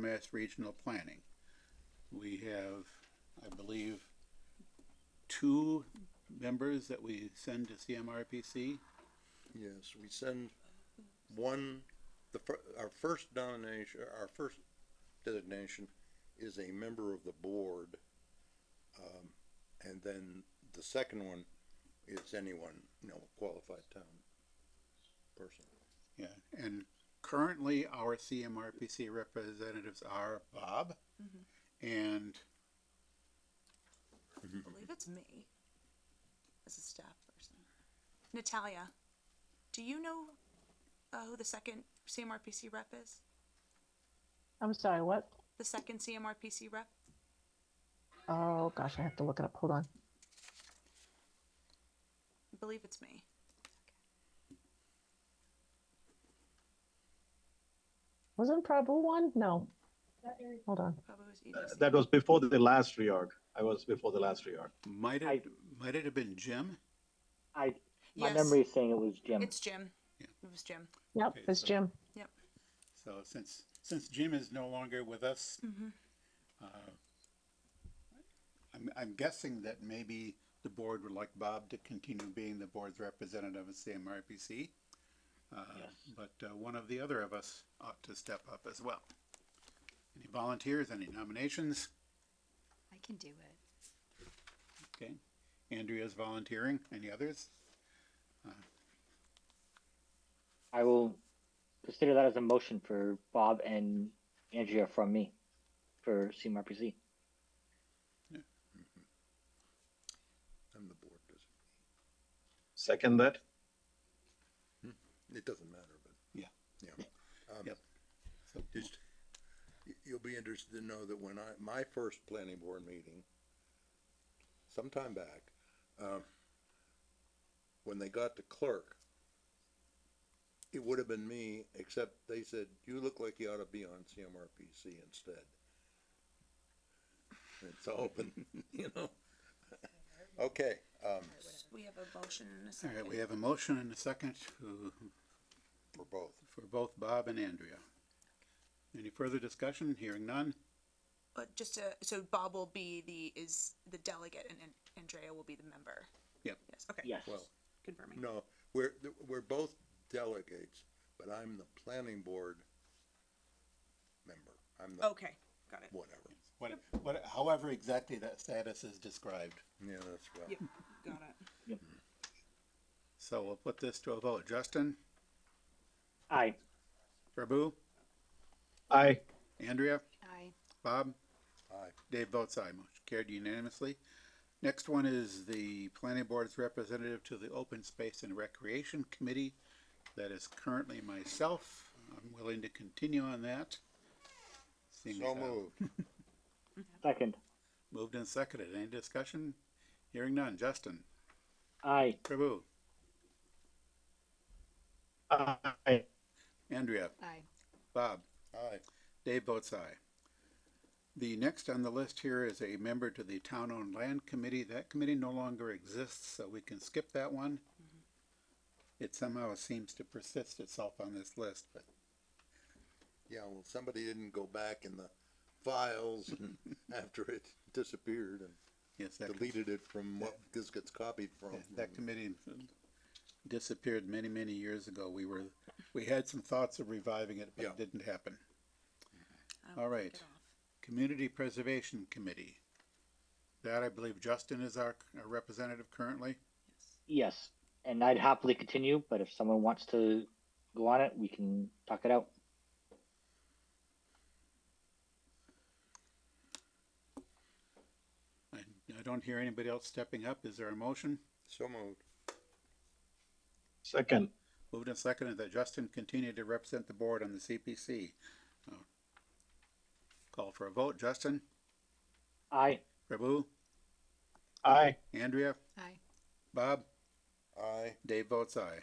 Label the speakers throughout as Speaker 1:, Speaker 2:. Speaker 1: Mass Regional Planning. We have, I believe, two members that we send to CMRPC.
Speaker 2: Yes, we send one, the fir- our first nomination, our first designation is a member of the board. Um, and then the second one is anyone, you know, qualified town person.
Speaker 1: Yeah, and currently our CMRPC representatives are Bob and
Speaker 3: I believe it's me as a staff person. Natalia, do you know uh, who the second CMRPC rep is?
Speaker 4: I'm sorry, what?
Speaker 3: The second CMRPC rep?
Speaker 4: Oh gosh, I have to look it up. Hold on.
Speaker 3: I believe it's me.
Speaker 4: Wasn't Prabhu one? No. Hold on.
Speaker 3: Probably was
Speaker 5: Uh,
Speaker 3: E EDC.
Speaker 6: That was before the last reorg. I was before the last reorg.
Speaker 1: might it, might it have been Jim?
Speaker 5: I my
Speaker 3: Yes.
Speaker 5: memory is um, saying it was Jim.
Speaker 3: It's Jim.
Speaker 1: Yeah.
Speaker 3: It was Jim.
Speaker 4: Yep,
Speaker 1: Okay,
Speaker 4: it's
Speaker 1: so-
Speaker 4: Jim.
Speaker 3: Yep.
Speaker 1: So since, since Jim is no longer with us,
Speaker 3: Mm-hmm.
Speaker 1: uh, I'm, I'm guessing that maybe the board would like Bob to continue being the board's representative of CMRPC. Uh, But uh, one of the other of us ought to step up as well. Any volunteers, any nominations?
Speaker 7: I can do it.
Speaker 1: Okay, Andrea's volunteering, any others?
Speaker 5: I will consider that as a motion for Bob and Andrea from me for CMRPC.
Speaker 2: I'm the board does.
Speaker 6: Second that.
Speaker 2: It doesn't matter, but.
Speaker 1: Yeah.
Speaker 2: Yeah. Um,
Speaker 1: Yep. So-
Speaker 2: Just, y- you'll be interested to know that when I, my first planning board meeting, sometime back, um, when they got the clerk, it would have been me, except they said, you look like you ought to be on CMRPC instead. It's open, you know? Okay, um,
Speaker 3: We have a motion and a
Speaker 1: All
Speaker 3: second.
Speaker 1: right, we have a motion and a second to,
Speaker 2: for both.
Speaker 1: for both Bob and Andrea. Any further discussion? Hearing none?
Speaker 3: Uh, just to, so Bob will be the is the delegate and, and Andrea will be the member.
Speaker 1: Yep.
Speaker 3: Yes. Okay.
Speaker 5: Yes.
Speaker 2: Well,
Speaker 3: Confirming.
Speaker 2: No, we're, we're both delegates, but I'm the planning board member. I'm the,
Speaker 3: Okay. Got it.
Speaker 2: whatever.
Speaker 1: What, what, however exactly that status is described.
Speaker 2: Yeah, that's right.
Speaker 3: Yep. Got it.
Speaker 1: So we'll put this to a vote. Justin,
Speaker 5: Aye.
Speaker 1: Prabu,
Speaker 6: I
Speaker 1: Andrea,
Speaker 7: I,
Speaker 1: Bob,
Speaker 2: Aye.
Speaker 1: Dave votes aye. Motion carried unanimously. Next one is the planning board's representative to the Open Space and Recreation Committee. That is currently myself. I'm willing to continue on that. Seeing
Speaker 2: So
Speaker 1: as how-
Speaker 2: moved.
Speaker 5: Second.
Speaker 1: Moved and seconded. Any discussion? Hearing none. Justin,
Speaker 5: Aye.
Speaker 1: Prabu,
Speaker 6: I
Speaker 1: Andrea,
Speaker 7: I,
Speaker 1: Bob,
Speaker 2: Aye.
Speaker 1: Dave votes aye. The next on the list here is a member to the Town Owned Land Committee. That committee no longer exists, so we can skip that one. It somehow seems to persist itself on this list, but
Speaker 2: Yeah, well, somebody didn't go back in the files and after it disappeared and
Speaker 1: yes, that,
Speaker 2: deleted it from what this gets copied from.
Speaker 1: that- that committee disappeared many, many years ago. We were, we had some thoughts of reviving it, but
Speaker 2: Yeah.
Speaker 1: it didn't happen.
Speaker 3: I
Speaker 1: All
Speaker 3: will take
Speaker 1: right.
Speaker 3: it off.
Speaker 1: Community Preservation Committee. That I believe Justin is our our representative currently.
Speaker 5: Yes. And I'd happily continue, but if someone wants to go on it, we can talk it out.
Speaker 1: I, I don't hear anybody else stepping up. Is there a motion?
Speaker 2: So moved.
Speaker 6: second.
Speaker 1: Moved and seconded that Justin continue to represent the board on the CPC. Uh, Call for a vote. Justin,
Speaker 5: Aye.
Speaker 1: Prabu,
Speaker 6: I
Speaker 1: Andrea,
Speaker 7: I,
Speaker 1: Bob,
Speaker 2: Aye.
Speaker 1: Dave votes aye.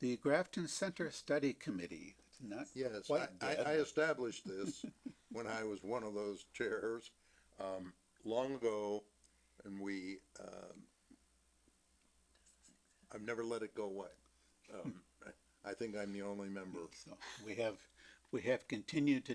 Speaker 1: The Grafton Center Study Committee. It's not
Speaker 2: Yes, I,
Speaker 1: quite
Speaker 2: I,
Speaker 1: dead.
Speaker 2: I established this when I was one of those chairs, um, long ago, and we, um, I've never let it go away. Um, I- I think I'm the only member
Speaker 1: So We have, we have continued to